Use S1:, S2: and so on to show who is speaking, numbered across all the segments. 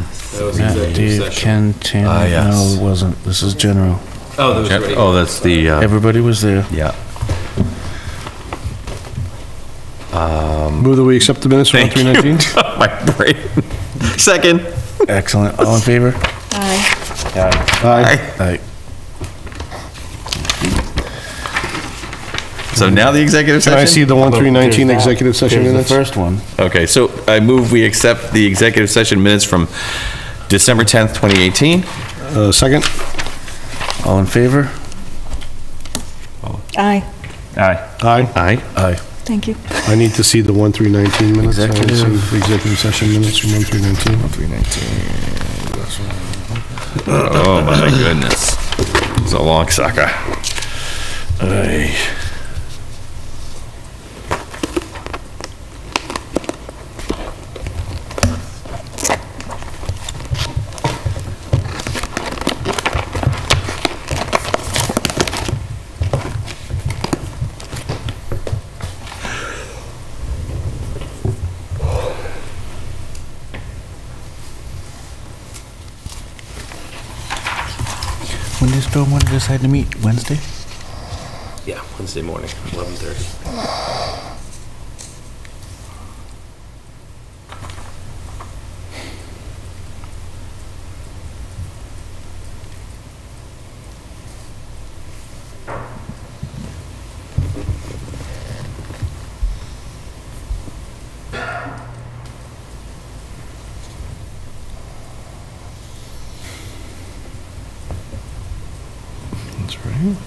S1: That was
S2: Matt,
S1: executive
S2: Dave,
S1: session.
S2: Ken,
S3: Ah,
S2: Tanner,
S3: yes.
S2: no, it wasn't. This is general.
S1: Oh, that was
S3: Gen-
S1: ready.
S3: Oh, that's the, uh,
S2: Everybody was there.
S3: yeah.
S4: Move that we accept the minutes from
S3: Thank you.
S4: 319?
S3: My brain. Second.
S2: Excellent. All in favor?
S5: Aye.
S4: Aye.
S2: Aye.
S3: So now the executive
S4: Can I see
S3: session?
S4: the one 319
S2: There's that.
S4: executive session
S2: There's
S4: minutes?
S2: The first one.
S3: Okay, so I move we accept the executive session minutes from December 10th, 2018.
S4: Uh, Second?
S2: All in favor?
S5: Aye.
S3: Aye.
S4: Aye.
S3: Aye.
S2: Aye.
S5: Thank you.
S4: I need to see the one 319 minutes. I haven't seen
S2: Executive.
S4: the Executive session minutes from one 319.
S3: Oh, my goodness. It's a long sucker. Aye.
S2: When does Stormwater decide to meet? Wednesday?
S1: Yeah, Wednesday morning, 11:30.
S4: That's right.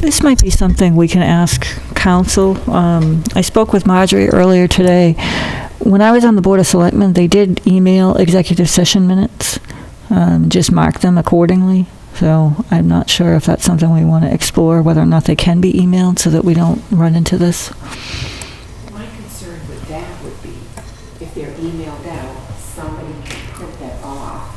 S5: This might be something we can ask council. Um, I spoke with Marjorie earlier today. When I was on the Board of Selectmen, they did email executive session minutes, um, just mark them accordingly. So I'm not sure if that's something we want to explore, whether or not they can be emailed so that we don't run into this.
S6: My concern with that would be, if they're emailed out, somebody can print that off,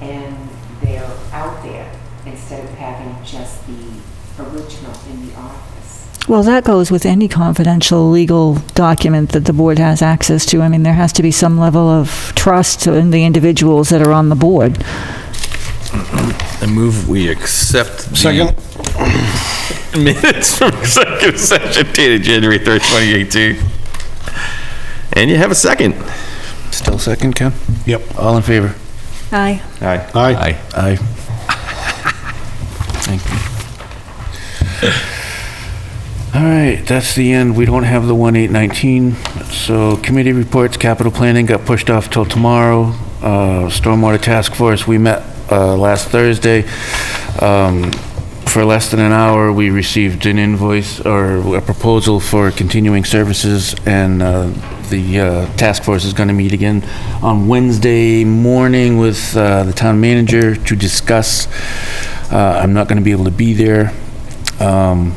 S6: and they're out there, instead of having just the original in the office.
S5: Well, that goes with any confidential legal document that the board has access to. I mean, there has to be some level of trust in the individuals that are on the board.
S3: I move we accept the
S4: Second?
S3: minutes from executive session dated January 3rd, 2018. And you have a second.
S2: Still second, Ken?
S4: Yep.
S2: All in favor?
S5: Aye.
S3: Aye.
S4: Aye.
S2: Aye. Thank you. All right, that's the end. We don't have the one eight nineteen. So committee reports, capital planning got pushed off till tomorrow. Uh, Stormwater task force, we met uh, last Thursday. Um, For less than an hour, we received an invoice or a proposal for continuing services and uh, the uh, task force is going to meet again on Wednesday morning with uh, the town manager to discuss. Uh, I'm not going to be able to be there. Um,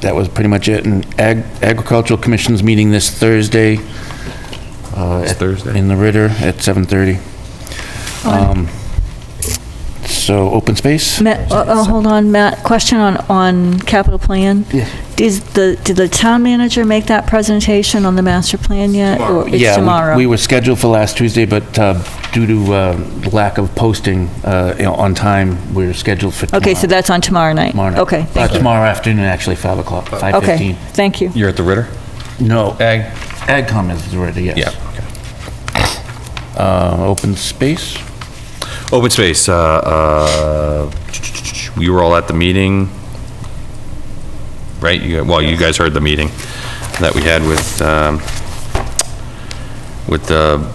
S2: That was pretty much it. And Ag- agricultural commission's meeting this Thursday. uh,
S3: It's
S2: at-
S3: Thursday.
S2: In the Ritter at 7:30. Um, So open space?
S5: Matt, oh, oh, hold on, Matt, question on, on capital plan?
S2: Yeah.
S5: Is the, did the town manager make that presentation on the master plan yet? Or
S2: Yeah,
S5: It's
S2: we-
S5: tomorrow?
S2: We were scheduled for last Tuesday, but uh, due to uh, lack of posting uh, you know, on time, we're scheduled for tomorrow.
S5: Okay, so that's on tomorrow night?
S2: tomorrow night.
S5: Okay,
S2: Uh,
S5: thank you.
S2: Tomorrow afternoon, actually, 5 o'clock, 5:15.
S5: Okay, thank you.
S3: You're at the Ritter?
S2: No,
S3: Ag?
S2: AgCom is ready, yes.
S3: Yeah.
S2: Uh, Open space?
S3: Open space, uh, uh, we were all at the meeting, right? You, well, you guys heard the meeting that we had with, um, with the